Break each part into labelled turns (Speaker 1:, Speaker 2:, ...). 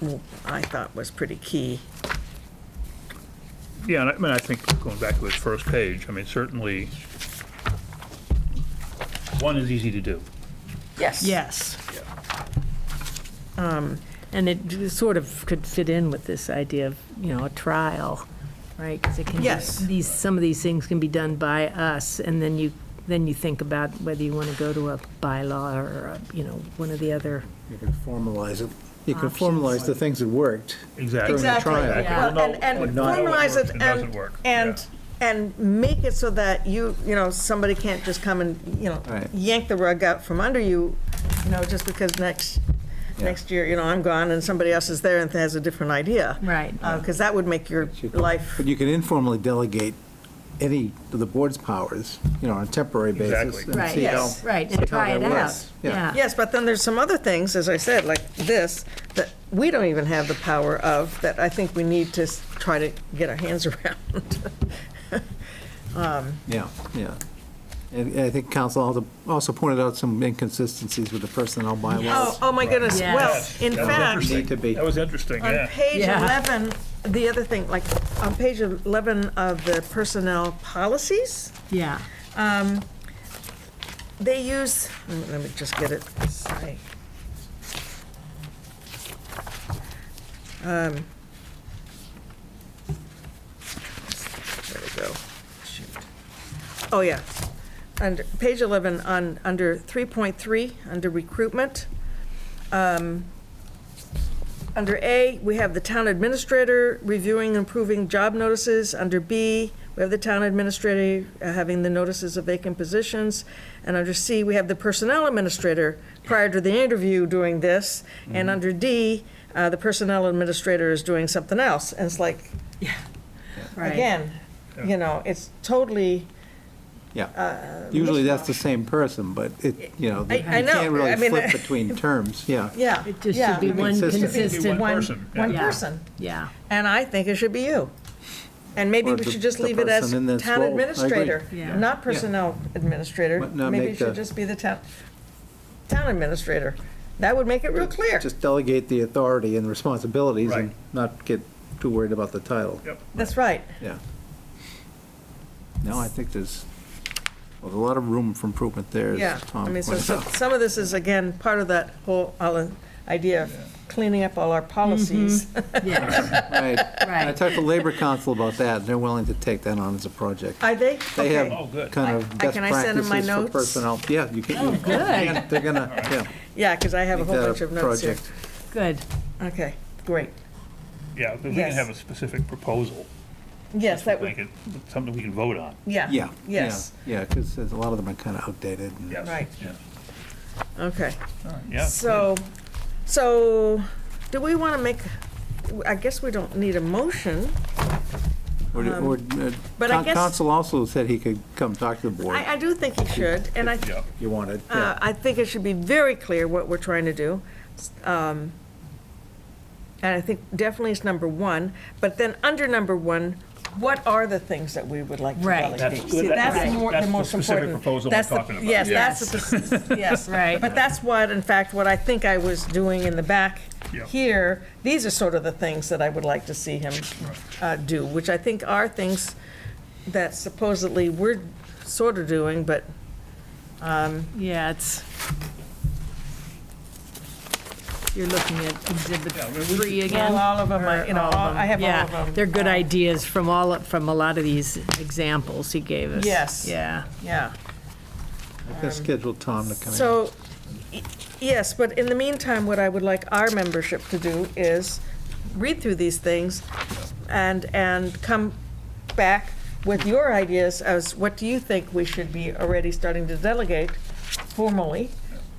Speaker 1: w- I thought was pretty key.
Speaker 2: Yeah, and I I mean, I think going back to its first page, I mean, certainly, one is easy to do.
Speaker 1: Yes.
Speaker 3: Yes.
Speaker 2: Yeah.
Speaker 3: And it sort of could fit in with this idea of, you know, a trial, right? Because it can, be-
Speaker 1: Yes.
Speaker 3: these, some of these things can be done by us, and then you, then you think about whether you want to go to a bylaw or, a, you know, one of the other.
Speaker 4: You can formalize it. You can
Speaker 3: Options.
Speaker 4: formalize the things that worked.
Speaker 2: Exactly.
Speaker 4: During the
Speaker 1: Exactly.
Speaker 4: trial.
Speaker 2: Exactly.
Speaker 1: Well,
Speaker 2: We'll know
Speaker 1: And, and
Speaker 2: what- what
Speaker 1: formalize
Speaker 2: works
Speaker 1: it
Speaker 2: and doesn't
Speaker 1: and,
Speaker 2: work.
Speaker 1: and, and make it so that you, you know, somebody can't just come and, you know,
Speaker 4: Right.
Speaker 1: yank the rug out from under you, you know, just because next,
Speaker 4: Yeah.
Speaker 1: next year, you know, I'm gone and somebody else is there and has a different idea.
Speaker 3: Right.
Speaker 1: Because that would make your
Speaker 4: you-
Speaker 1: life,
Speaker 4: But you can informally delegate any of the board's powers, you know, on a temporary basis.
Speaker 2: Exactly.
Speaker 4: and
Speaker 3: Right,
Speaker 4: see
Speaker 3: yes,
Speaker 4: how-
Speaker 3: right,
Speaker 4: see how
Speaker 3: and try
Speaker 4: that
Speaker 3: it out,
Speaker 4: works.
Speaker 3: yeah.
Speaker 1: yes, but then there's some other things, as I said, like this, that we don't even have the power of, that I think we need to s- try to get our hands around.
Speaker 4: Yeah, yeah. And and I think council also- also pointed out some inconsistencies with the personnel
Speaker 1: Oh,
Speaker 4: bylaws.
Speaker 1: oh my goodness,
Speaker 3: Yes.
Speaker 1: well,
Speaker 2: Yes,
Speaker 1: in
Speaker 2: that was
Speaker 1: fact,
Speaker 2: interesting.
Speaker 4: Need to be.
Speaker 2: That was interesting,
Speaker 1: On
Speaker 2: yeah.
Speaker 1: page
Speaker 3: Yeah.
Speaker 1: 11, the other thing, like, on page 11 of the personnel policies,
Speaker 3: Yeah.
Speaker 1: um, they use, let me- let me just get it, sorry. Um, There we go. Shoot. Oh, yeah. Under, page 11, on, under 3.3, under recruitment, um, under A, we have the town administrator reviewing and approving job notices. Under B, we have the town administrator uh, having the notices of vacant positions. And under C, we have the personnel administrator prior to the interview doing this. And under D, uh, the personnel administrator is doing something else. And it's like,
Speaker 3: Right.
Speaker 1: again, you know, it's totally,
Speaker 4: Yeah. Usually that's the same person, but it, you know,
Speaker 1: I-
Speaker 4: you
Speaker 1: I know,
Speaker 4: can't
Speaker 1: I
Speaker 4: really
Speaker 1: mean,
Speaker 4: flip between terms, yeah.
Speaker 1: yeah.
Speaker 3: It just
Speaker 1: yeah.
Speaker 3: should be one
Speaker 4: Consistent.
Speaker 2: Be
Speaker 3: consistent,
Speaker 2: one
Speaker 1: One-
Speaker 2: person, yeah.
Speaker 1: One
Speaker 3: Yeah.
Speaker 1: person.
Speaker 3: yeah.
Speaker 1: And I think it should be you. And maybe
Speaker 4: Or
Speaker 1: we
Speaker 4: the-
Speaker 1: should just
Speaker 4: the
Speaker 1: leave it as
Speaker 4: person in this
Speaker 1: town
Speaker 4: role. I agree.
Speaker 1: administrator,
Speaker 3: Yeah.
Speaker 1: not personnel administrator.
Speaker 4: But not
Speaker 1: Maybe
Speaker 4: make
Speaker 1: it should
Speaker 4: the-
Speaker 1: just be the town, town administrator. That would make it real clear.
Speaker 4: Just delegate the authority and responsibilities and
Speaker 2: Right.
Speaker 4: not get too worried about the title.
Speaker 2: Yep.
Speaker 1: That's right.
Speaker 4: Yeah. No, I think there's, well, there's a lot of room for improvement there,
Speaker 1: Yeah.
Speaker 4: as Tom
Speaker 1: I mean,
Speaker 4: pointed
Speaker 1: so so-
Speaker 4: out.
Speaker 1: some of this is, again, part of that whole uh, idea of cleaning up all our policies.
Speaker 3: Yes,
Speaker 4: Right. I
Speaker 3: right.
Speaker 4: talked to Labor Council about that, and they're willing to take that on as a project.
Speaker 1: Are they?
Speaker 4: They
Speaker 2: Oh,
Speaker 1: Okay.
Speaker 4: have
Speaker 2: good.
Speaker 4: kind
Speaker 1: I-
Speaker 4: of best
Speaker 1: can I send them my
Speaker 4: practices for
Speaker 1: notes?
Speaker 4: personnel. Yeah, you can. Oh, good. They're gonna, yeah.
Speaker 1: Yeah, because I have a
Speaker 4: make
Speaker 1: whole
Speaker 4: that
Speaker 1: bunch of notes here.
Speaker 4: project.
Speaker 3: Good,
Speaker 1: Okay, great.
Speaker 2: Yeah, if we can
Speaker 1: Yes.
Speaker 2: have a specific proposal.
Speaker 1: Yes, that
Speaker 2: we
Speaker 1: would,
Speaker 2: can- Something we can vote on,
Speaker 1: yeah.
Speaker 4: Yeah. yeah,
Speaker 1: Yes,
Speaker 4: Yeah, because a lot of them are kind of outdated. and-
Speaker 2: yes.
Speaker 1: Right.
Speaker 2: yeah.
Speaker 1: okay.
Speaker 2: All right, Yeah.
Speaker 1: So, so, do we want to make, I guess we don't need a motion.
Speaker 4: Or, or, uh,
Speaker 1: Um, but I
Speaker 4: Con-
Speaker 1: guess-
Speaker 4: Council also said he could come talk to the board
Speaker 1: I,
Speaker 4: if
Speaker 1: I do think it should, and I,
Speaker 2: Yeah,
Speaker 4: you wanted. yeah.
Speaker 1: uh, I think it should be very clear what we're trying to do. Um, And I think definitely it's number one, but then under number one, what are the things that we would like to
Speaker 3: Right.
Speaker 1: delegate?
Speaker 2: That's-
Speaker 1: See, That's
Speaker 2: that's-
Speaker 1: the more, the
Speaker 2: that's the
Speaker 1: most
Speaker 2: specific
Speaker 1: important.
Speaker 2: proposal I'm
Speaker 1: That's the-
Speaker 2: talking about.
Speaker 1: Yes, that's, the- yes.
Speaker 3: Right.
Speaker 1: But that's what, in fact, what I think I was doing in the back
Speaker 2: Yeah.
Speaker 1: here, these are sort of the things that I would like to see him uh, do, which I think are things that supposedly we're sort of doing, but
Speaker 3: yeah, it's. You're looking at exhibit
Speaker 2: Yeah, we- we
Speaker 3: three
Speaker 2: should-
Speaker 3: again?
Speaker 1: Well, all of 'em are-
Speaker 3: Or
Speaker 1: you know,
Speaker 3: all of
Speaker 1: all- I
Speaker 3: 'em?
Speaker 1: have all
Speaker 3: Yeah,
Speaker 1: of 'em.
Speaker 3: They're good
Speaker 1: Uh,
Speaker 3: ideas from all, from a lot of these examples he gave us.
Speaker 1: Yes.
Speaker 3: Yeah,
Speaker 1: yeah.
Speaker 4: I can schedule Tom to come in.
Speaker 1: So, y- yes, but in the meantime, what I would like our membership to do is read through these things and, and come back with your ideas as what do you think we should be already starting to delegate formally?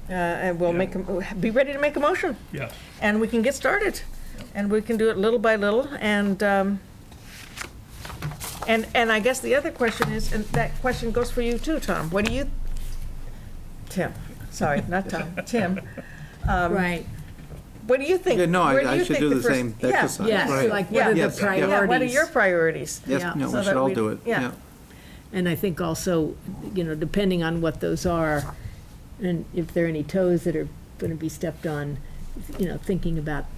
Speaker 1: Uh, And we'll make, a- be ready to make a motion,
Speaker 2: yeah.
Speaker 1: and we can get started. And we can do it little by little, and, um, and, and I guess the other question is, and that question goes for you too, Tom. What do you, Tim, sorry, not Tom, Tim. Um,
Speaker 3: right.
Speaker 1: What do you think?
Speaker 4: Yeah, no,
Speaker 1: where do
Speaker 4: I I
Speaker 1: you
Speaker 4: should
Speaker 1: think
Speaker 4: do the
Speaker 1: first-
Speaker 4: same
Speaker 1: yeah,
Speaker 4: exercise.
Speaker 3: Yes,
Speaker 4: right.
Speaker 3: like what are the
Speaker 4: Yes, yeah.
Speaker 1: Yeah, what are
Speaker 3: priorities?
Speaker 1: your priorities?
Speaker 3: Yeah.
Speaker 4: Yes, no,
Speaker 1: So
Speaker 4: we
Speaker 1: that
Speaker 4: should all
Speaker 1: we-
Speaker 4: do it,
Speaker 1: yeah.
Speaker 4: yeah.
Speaker 3: And I think also, you know, depending on what those are, and if there are any toes that are going to be stepped on, you know, thinking about